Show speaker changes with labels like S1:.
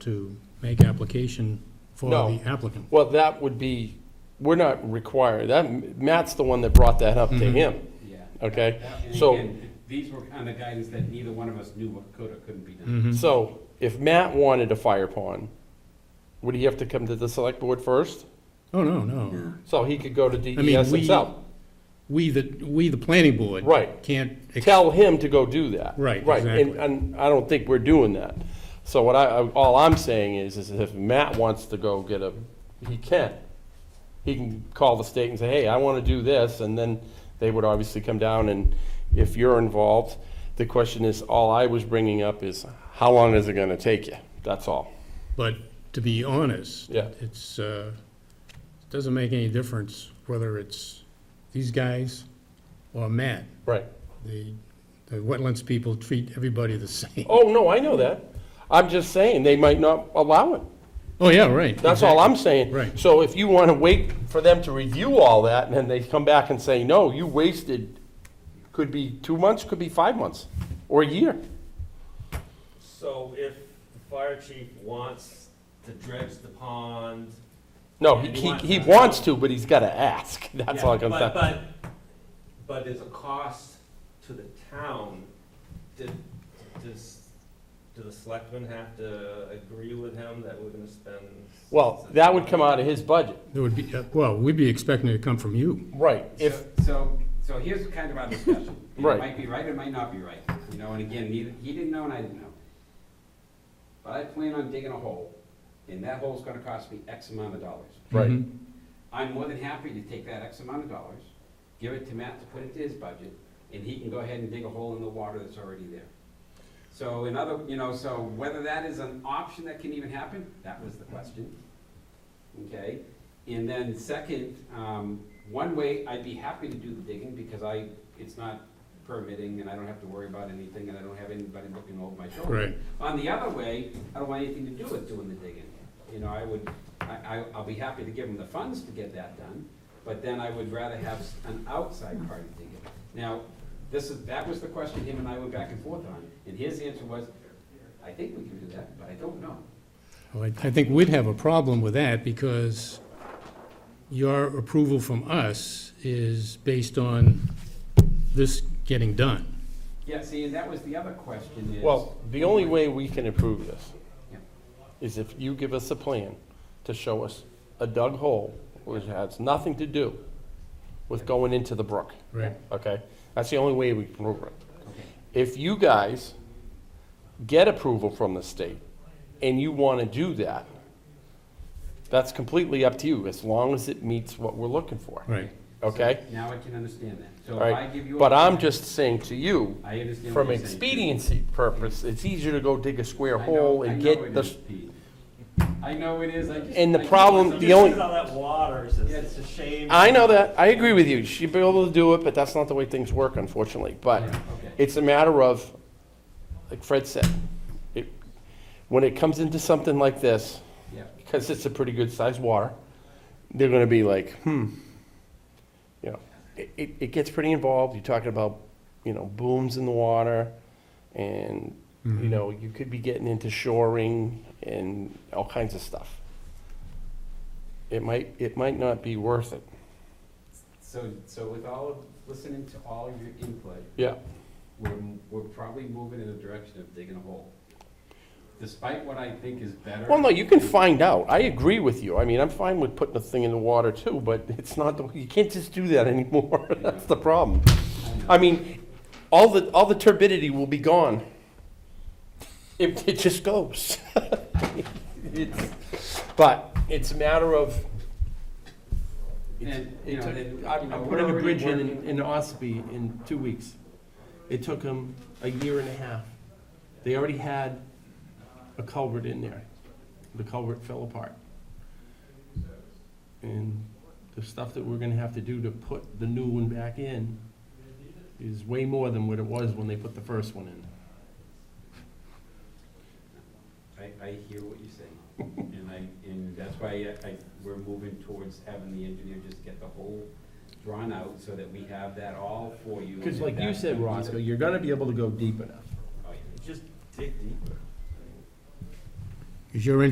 S1: to make application for
S2: No.
S1: the applicant.
S2: Well, that would be, we're not required, that, Matt's the one that brought that up to
S1: Mhm.
S2: him,
S3: Mm-hmm. Yeah.
S2: okay?
S3: And
S2: So-
S3: again, These were kind of guidance that neither one of us knew what could or couldn't be done.
S2: Mm-hmm.
S1: Mhm.
S2: So, if Matt wanted a fire pond, would he have to come to the select board first?
S1: Oh, no, no.
S2: So he could go to
S1: we-
S2: DES himself?
S1: We, the, we, the planning board.
S2: Right.
S1: Can't. ex-
S2: Tell him to go do that.
S1: Right,
S2: Right, and,
S1: exactly.
S2: and I don't think we're doing that. So what I, I- all I'm saying is, is if Matt wants to go get a, he can. He can call the state and say, hey, I want to do this, and then they would obviously come down, and if you're involved, the question is, all I was bringing up is, how long is it going to take you? That's all.
S1: But to be honest.
S2: Yeah.
S1: It's, uh, it doesn't make any difference whether it's these guys or Matt.
S2: Right.
S1: The, the wetlands people treat everybody the same.
S2: Oh, no, I know that. I'm just saying, they might not allow it.
S1: Oh, yeah, right.
S2: That's all I'm saying.
S1: Right.
S2: So if you want to wait for them to review all that, and then they come back and say, no, you wasted, could be two months, could be five months, or a year.
S4: So if the fire chief wants to dredge the pond.
S2: No, he,
S4: Yeah, he
S2: he
S4: wants
S2: he
S4: that.
S2: wants to, but he's got to ask. That's
S4: Yeah,
S2: all I'm
S4: but-
S2: saying.
S4: But, but there's a cost to the town. Did, does, do the selectmen have to agree with him that we're gonna spend?
S2: Well, that would come out of his budget.
S1: There would be, uh, well, we'd be expecting it to come from you.
S2: Right. If,
S3: So- So, so here's kind of our discussion. And
S2: Right.
S3: It might be right, it might not be right, you know, and again, neither, he didn't know and I didn't know. But I plan on digging a hole, and that hole's gonna cost me X amount of dollars.
S2: Right.
S1: Mhm.
S3: I'm more than happy to take that X amount of dollars, give it to Matt to put into his budget, and he can go ahead and dig a hole in the water that's already there. So in other, you know, so whether that is an option that can even happen, that was the question. Okay, and then second, um, one way, I'd be happy to do the digging because I, it's not permitting and I don't have to worry about anything and I don't have anybody looking over my shoulder.
S1: Right.
S3: On the other way, I don't want anything to do with doing the digging. You know, I would, I, I, I'll be happy to give them the funds to get that done, but then I would rather have s- an outside
S2: Mm-hmm.
S3: party dig it. Now, this is, that was the question him and I went back and forth on, and his answer was, I think we can do that, but I don't know.
S1: Well, I I think we'd have a problem with that because your approval from us is based on this getting done.
S3: Yeah, see, and that was the other question is.
S2: well, the only way we can approve this
S3: Yeah.
S2: is if you give us a plan to show us a dug hole, which has nothing to do with going into the brook.
S1: Right.
S2: Okay? That's the only way we can prove it.
S3: Okay.
S2: If you guys get approval from the state and you want to do that, that's completely up to you, as long as it meets what we're looking for,
S1: Right.
S2: okay?
S3: Now I can understand that. So
S2: All
S3: if I give
S2: right,
S3: you. a
S2: but I'm
S3: plan,
S2: just saying to you,
S3: I understand what
S2: from
S3: you're saying.
S2: expediency purpose, it's easier to go dig a square
S3: I know-
S2: hole
S3: I
S2: and
S3: know it
S2: get the,
S3: is, Pete. I know it is, I just.
S2: And the
S3: I just-
S2: problem-
S3: I'm
S4: Just
S2: the
S3: just-
S2: only-
S4: because all that water, it's just-
S3: Yeah.
S4: it's a shame.
S2: I know that, I agree with you, she'd be able to do it, but that's not the way things work unfortunately, but
S3: Yeah, okay.
S2: it's a matter of, like Fred said, it, when it comes into something like this,
S3: Yeah,
S2: because it's a pretty good sized water, they're going to be like, hmm, you know, it, it, it gets pretty involved. You're talking about, you know, booms in the water, and
S1: Mm-hmm.
S2: you know, you could be getting into shoring and all kinds of stuff. It might, it might not be worth it.
S3: so, so with all, of listening to all of your input,
S2: Yeah.
S3: we're, we're probably moving in the direction of digging a hole. Despite what I think is better.
S2: Well, no, you can find out. I agree with you. I mean, I'm fine with putting a thing in the water too, but it's not, the you can't just do that anymore. That's the problem. I mean, all the, all the turbidity will be gone. It, it just goes. It's- But it's a matter of, it's-
S3: And, you
S2: it
S3: know,
S2: took-
S3: then,
S2: I
S3: you
S2: I
S3: know,
S2: put in a
S3: we're
S2: bridge in,
S3: already
S2: in Ospey in two weeks. It took them a year and a half. They already had a culvert in there. The culvert fell apart. And the stuff that we're gonna have to do to put the new one back in is way more than what it was when they put the first one in.
S3: I, I hear what you're saying, and I, and that's why I, I, we're moving towards having the engineer just get the whole drawn out so that we have that all for you.
S2: Because
S3: and
S2: like you
S3: that's
S2: said,
S3: gonna be
S2: Roscoe,
S3: the-
S2: you're gonna be able to go deep enough.
S3: Oh, yeah.
S4: Just dig deeper.
S1: Is your